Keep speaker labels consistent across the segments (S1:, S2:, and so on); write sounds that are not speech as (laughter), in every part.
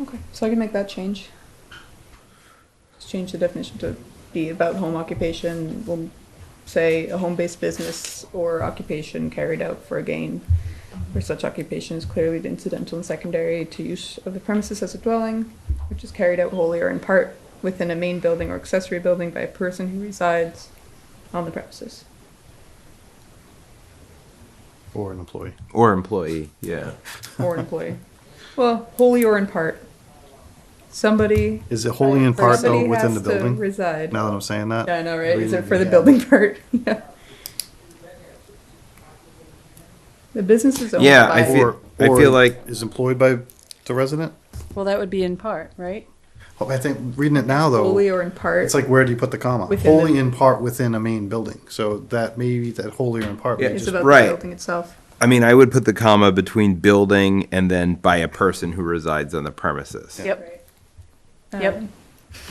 S1: Okay, so I can make that change. Just change the definition to be about home occupation. We'll say a home-based business or occupation carried out for a gain, where such occupation is clearly the incidental and secondary to use of the premises as a dwelling, which is carried out wholly or in part within a main building or accessory building by a person who resides on the premises.
S2: Or an employee.
S3: Or employee, yeah.
S1: or
S2: (laughs)
S1: an employee. Well, wholly or in part. Somebody.
S2: Is it wholly in part though
S1: somebody
S2: within
S1: has
S2: the
S1: to
S2: building?
S1: Reside.
S2: Now that I'm saying that?
S1: Yeah, I know, right? Is it for the
S2: Yeah.
S1: building (laughs) part? Yeah. The business is owned
S3: Yeah, I
S1: by.
S3: feel-
S2: Or,
S3: I
S2: or
S3: feel like-
S2: Is employed by the resident?
S4: Well, that would be in part, right?
S2: Oh, I think, reading it now
S1: Wholly
S2: though,
S1: or in part.
S2: it's like where do you put the comma?
S1: Within the-
S2: Wholly in part within a main building, so that maybe that wholly or in part.
S3: Yeah.
S2: may
S1: It's
S2: just-
S1: about the
S3: right.
S1: building itself.
S3: I mean, I would put the comma between building and then by a person who resides on the premises.
S4: Yep. Yep.
S1: Um,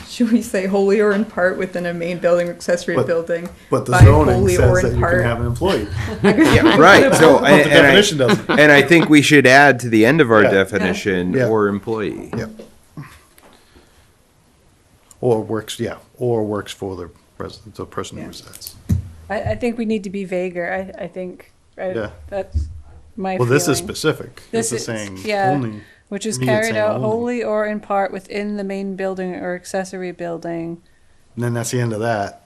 S1: Should we say wholly or in part within a main building or accessory
S2: But-
S1: building?
S2: But the
S1: by
S2: zoning
S1: wholly
S2: says
S1: or in
S2: that you can
S1: part? (laughs)
S2: have an employee,
S3: Yeah, right. So,
S2: but the
S3: and, and
S2: definition
S3: I, (laughs)
S2: doesn't.
S3: and I think we should add to the end of our
S2: Yeah.
S3: definition
S2: Yeah.
S3: or employee.
S2: Yep. Or works, yeah, or works for the resident, the person who
S1: Yeah.
S2: resides.
S4: I, I think we need to be vaguer. I, I think,
S2: Yeah.
S4: right? That's my
S2: Well, this is
S4: feeling.
S2: specific. This is saying
S4: yeah,
S2: only.
S4: Which is
S2: me, it's
S4: carried
S2: saying
S4: out
S2: only.
S4: wholly or in part within the main building or accessory building.
S2: And then that's the end of that.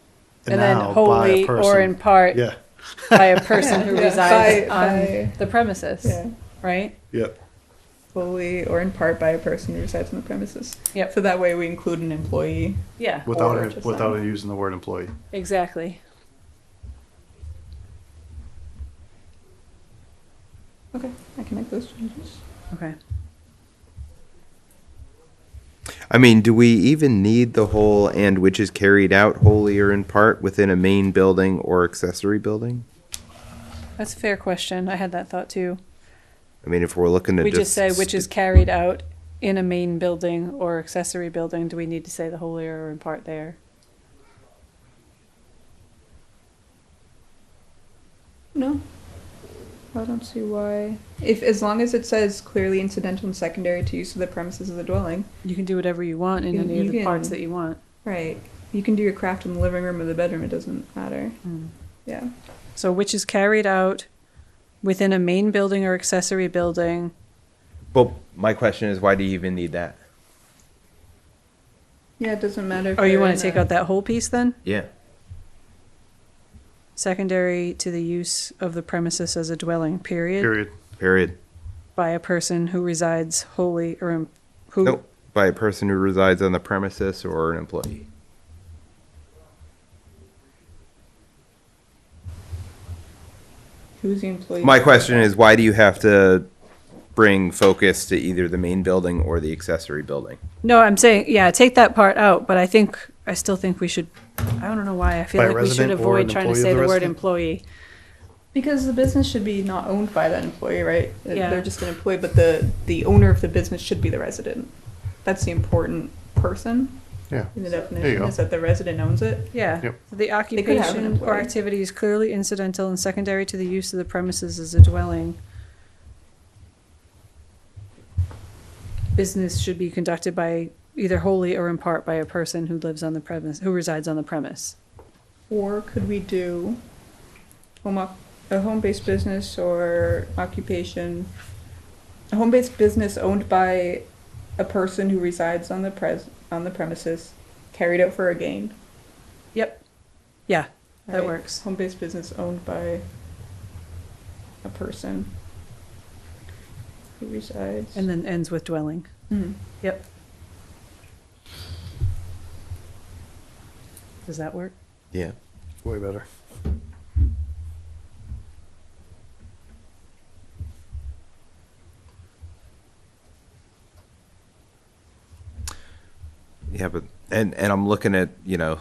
S4: And then
S2: now by a
S4: wholly or
S2: person.
S4: in part
S2: Yeah,
S4: by a person
S1: (laughs)
S4: who
S1: Yeah, by-
S4: resides
S1: by-
S4: on the premises,
S1: Yeah.
S4: right?
S2: yep.
S1: Wholly or in part by a person who resides on the premises.
S4: Yep.
S1: So that way we include an employee.
S4: Yeah,
S2: Without
S1: Or
S2: it,
S1: just
S2: without
S1: that.
S2: it using the word employee.
S4: exactly.
S1: Okay, I can make those changes.
S4: Okay.
S3: I mean, do we even need the whole and which is carried out wholly or in part within a main building or accessory building?
S4: That's a fair question. I had that thought too.
S3: I mean, if we're looking to
S4: We just say which
S3: st-
S4: is carried out in a main building or accessory building. Do we need to say the wholly or in part there?
S1: No. I don't see why. If as long as it says clearly incidental and secondary to use of the premises of the dwelling,
S4: You can do whatever you want in
S1: You-
S4: any of
S1: you
S4: the parts
S1: can-
S4: that you want.
S1: right? You can do your craft in the living room or the bedroom. It doesn't matter.
S4: Hmm.
S1: Yeah.
S4: So which is carried out within a main building or accessory building.
S3: Well, my question is, why do you even need that?
S1: Yeah, it doesn't matter. If
S4: Oh, you
S1: you're
S4: want
S1: in
S4: to take
S1: a-
S4: out that whole piece then?
S3: Yeah.
S4: Secondary to the use of the premises as a dwelling, period,
S2: Period.
S3: Period.
S4: by a person who resides wholly or in- who,
S3: Nope. By a person who resides on the premises or an employee.
S1: Who's the employee?
S3: My question is, why do you have to bring focus to either the main building or the accessory building?
S4: no, I'm saying, yeah, take that part out, but I think, I still think we should, I don't know why, I feel
S2: By a
S4: like we should
S2: resident or an
S4: avoid trying
S2: employee
S4: to
S2: of
S4: say
S2: the
S4: the word
S2: resident?
S4: employee.
S1: Because the business should be not owned by that employee, right?
S4: Yeah.
S1: They're just an employee, but the the owner of the business should be the resident. That's the important person
S2: Yeah.
S1: in the
S2: you
S1: definition
S2: go.
S1: is that the resident owns it.
S4: Yeah,
S2: Yep.
S4: the
S1: could have an
S4: occupation or
S1: employee.
S4: activity is clearly incidental and secondary to the use of the premises as a dwelling. Business should be conducted by either wholly or in part by a person who lives on the premise, who resides on the premise.
S1: Or could we do home oc- a home-based business or occupation, a home-based business owned by a person who resides on the pres on the premises, carried out for a gain.
S4: Yep. Yeah, that
S1: right?
S4: works.
S1: Home-based business owned by a person who resides.
S4: And then ends with dwelling. (laughs)
S1: Mhm.
S4: Yep. Does that work?
S3: Yeah.
S2: Way better.
S3: Yeah, but and and I'm looking at you know,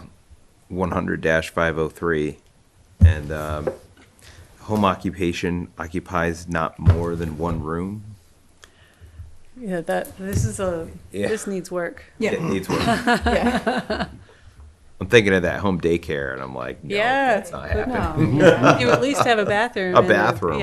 S3: 100-503, and um, home occupation occupies not more than one room.
S4: Yeah, that, this is a,
S3: Yeah.
S4: this needs work.
S3: That
S1: yeah,
S3: needs work.
S1: yeah.
S3: I'm thinking of that home daycare, and I'm like, no,
S4: Yeah.
S3: that's not
S4: But
S3: happening.
S1: No, yeah.
S4: You at least have a bathroom.
S3: A
S4: and
S3: bathroom,